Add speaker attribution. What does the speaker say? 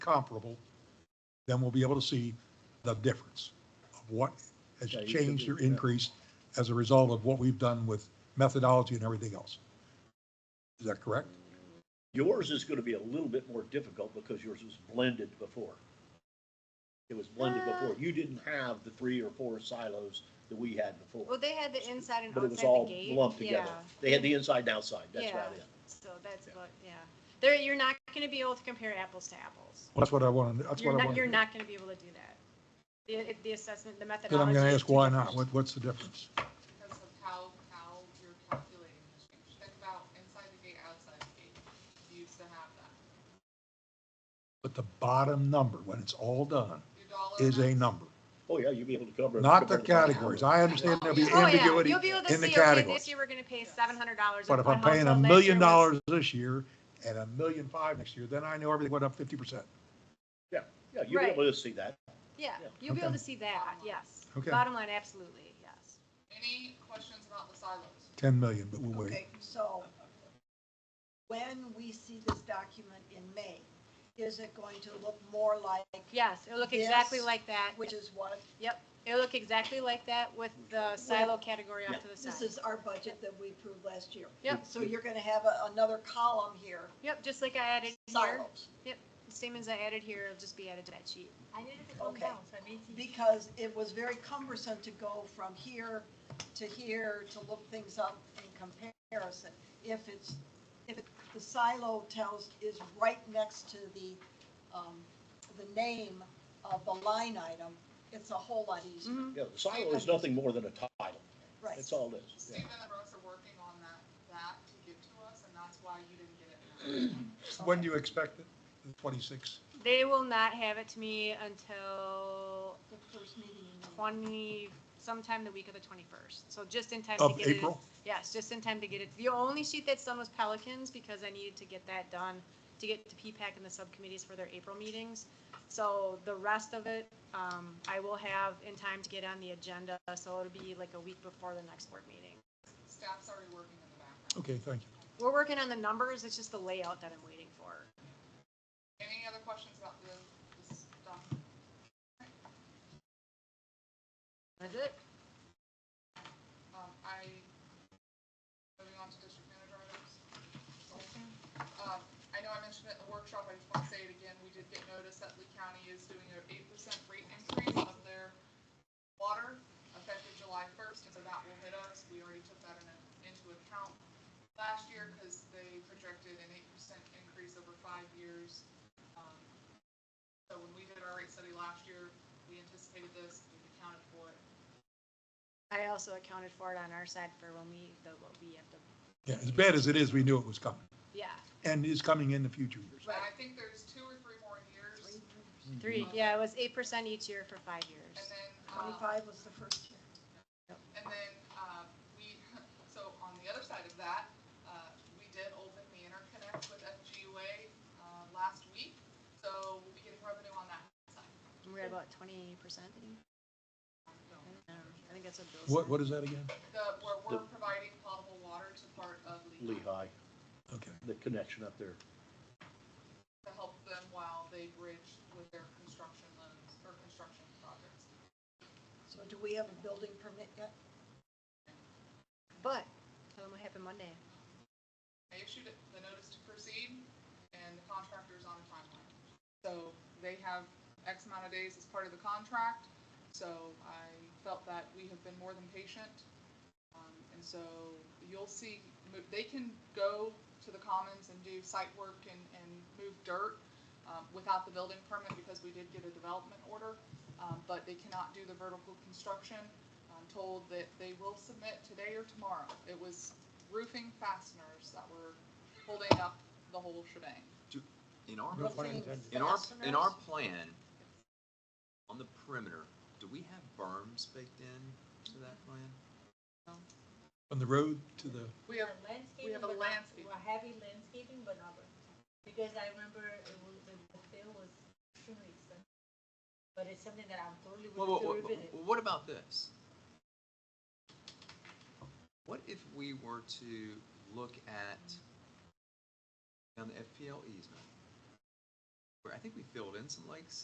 Speaker 1: comparable, then we'll be able to see the difference of what has
Speaker 2: Yeah, you should
Speaker 1: changed
Speaker 2: be-
Speaker 1: or
Speaker 2: yeah.
Speaker 1: increased as a result of what we've done with methodology and everything else. Is that correct?
Speaker 2: Yours is gonna be a little bit more difficult because yours was blended before. It was blended
Speaker 3: Uh.
Speaker 2: before. You didn't have the three or four silos that we had before.
Speaker 3: Well, they had the inside and
Speaker 2: But it was
Speaker 3: outside the
Speaker 2: all
Speaker 3: gate.
Speaker 2: lumped together.
Speaker 3: Yeah.
Speaker 2: They had the inside and outside, that's
Speaker 3: Yeah.
Speaker 2: about it.
Speaker 3: So that's about, yeah. There, you're not gonna be able to compare apples to apples.
Speaker 1: Well, That's what I want to, that's
Speaker 3: You're
Speaker 1: what I
Speaker 3: not,
Speaker 1: want to
Speaker 3: you're
Speaker 1: do.
Speaker 3: not gonna be able to do that. The, it- the assessment, the
Speaker 1: Then
Speaker 3: methodology.
Speaker 1: I'm going to ask
Speaker 3: is too
Speaker 1: why
Speaker 3: different.
Speaker 1: not? What, what's the difference?
Speaker 4: because of how, how you're calculating the change. Think about inside the gate, outside the gate. You used to have that.
Speaker 1: But the bottom number, when it's all done,
Speaker 4: Your dollar.
Speaker 1: is a
Speaker 4: amount-
Speaker 1: number,
Speaker 2: Oh, yeah, you'd be able to cover.
Speaker 1: not the
Speaker 2: cover whole
Speaker 1: categories.
Speaker 2: hour.
Speaker 1: I understand there'll be
Speaker 4: the
Speaker 3: Oh, yeah.
Speaker 1: ambiguity
Speaker 3: You'll be able to
Speaker 1: in the
Speaker 3: see, okay,
Speaker 1: categories.
Speaker 3: this year we're gonna pay seven hundred dollars.
Speaker 1: But if I'm paying a million dollars this year and a million five next year, then I know everything went up fifty percent.
Speaker 2: Yeah, yeah, you'll be
Speaker 3: Right.
Speaker 2: able to see that.
Speaker 3: Yeah,
Speaker 2: Yeah.
Speaker 3: you'll be able
Speaker 1: Okay.
Speaker 3: to see that, yes.
Speaker 1: Okay.
Speaker 3: Bottom line, absolutely, yes.
Speaker 4: Any questions about the silos?
Speaker 1: Ten million, but we'll wait.
Speaker 5: Okay, so when we see this document in May, is it going to look more like,
Speaker 3: Yes, it'll look exactly
Speaker 5: This-
Speaker 3: like that.
Speaker 5: which is what,
Speaker 3: Yep, it'll look exactly like that with the silo category off to the
Speaker 5: this
Speaker 3: side.
Speaker 5: is our budget that we approved last year?
Speaker 3: Yep.
Speaker 5: So you're gonna have a- another column here,
Speaker 3: Yep, just like I added here.
Speaker 5: silos,
Speaker 3: Yep, same as I added here, it'll just be added to that sheet. I did it
Speaker 5: Okay. down, because it was very cumbersome to go from here to here to look things up in comparison. If it's, if it- the silo tells, is right next to the, um, the name of the line item, it's a whole lot easier.
Speaker 3: Mm-hmm.
Speaker 2: Yeah, the silo is nothing more than a title.
Speaker 5: Right.
Speaker 2: That's all it is. Yeah.
Speaker 4: Stephen and Russ are working on that, that to give to us, and that's why you didn't get it. now.
Speaker 1: When do you expect it? Twenty-six?
Speaker 3: They will not have it to me until
Speaker 5: The first meeting in May.
Speaker 3: twenty, sometime the week of the twenty-first. So just in time to
Speaker 1: Of
Speaker 3: get it.
Speaker 1: April?
Speaker 3: Yes, just in time to get it. The only sheet that's done was Pelicans because I needed to get that done to get to P-PAC and the subcommittees for their April meetings. So the rest of it, um, I will have in time to get on the agenda, so it'll be like a week before the next board meeting.
Speaker 4: Staff's already working in the background.
Speaker 1: Okay, thank you.
Speaker 3: We're working on the numbers, it's just the layout that I'm waiting for.
Speaker 4: Any other questions about the, this document?
Speaker 3: That's it?
Speaker 4: Um, I, moving on to district manager items. Um, I know I mentioned it in the workshop, I just want to say it again, we did get notice that Lee County is doing an eight percent rate increase of their water effective July first, and so that will hit us, we already took that in, into account last year, because they projected an eight percent increase over five years. Um, So when we did our rate study last year, we anticipated this, we accounted for it,
Speaker 3: I also accounted for it on our side for when we, the, what we have to,
Speaker 1: Yeah, as bad as it is, we knew it was coming
Speaker 3: yeah,
Speaker 1: and is coming in the future years.
Speaker 4: but I think there's two or three more years.
Speaker 1: Mm-hmm.
Speaker 3: three, yeah, it was eight percent each year for five
Speaker 4: And
Speaker 3: years.
Speaker 4: then, uh,
Speaker 5: Twenty-five was the first year.
Speaker 4: and then, uh, we, so on the other side of that, uh, we did open the interconnect with FGUA, uh, last week. So we'll be getting revenue on that side.
Speaker 3: We We're at about twenty percent, I think that's what Bill said.
Speaker 1: What, what is that again?
Speaker 4: The, we're, we're providing potable water to part of Lehigh
Speaker 2: Lehigh,
Speaker 1: Okay.
Speaker 2: the connection up there.
Speaker 4: to help them while they bridge with their construction loans or construction projects.
Speaker 5: So do we have a building permit yet?
Speaker 3: But, tell them what happened Monday.
Speaker 4: They issued it- the notice to proceed, and the contractor is on a timeline. So they have X amount of days as part of the contract, so I felt that we have been more than patient. Um, And so you'll see, mo- they can go to the commons and do site work and, and move dirt um, without the building permit because we did get a development order, um, but they cannot do the vertical construction. I'm told that they will submit today or tomorrow. It was roofing fasteners that were holding up the whole shebang.
Speaker 6: In our,
Speaker 1: No pun
Speaker 5: Building
Speaker 1: intended.
Speaker 6: in our, in
Speaker 5: fasteners?
Speaker 6: our plan, on the perimeter, do we have berms baked in to that plan?
Speaker 1: From the road to the,
Speaker 4: We have We
Speaker 7: landscaping,
Speaker 4: have a
Speaker 7: but not,
Speaker 4: landscape.
Speaker 7: well, heavy landscaping, but not, burnt. because I remember it was, the bill was extremely expensive. But it's something that I'm totally
Speaker 6: Well,
Speaker 7: willing
Speaker 6: what,
Speaker 7: to
Speaker 6: what,
Speaker 7: revisit.
Speaker 6: what about this? What if we were to look at, on the FPL easement, I think we filled in some lakes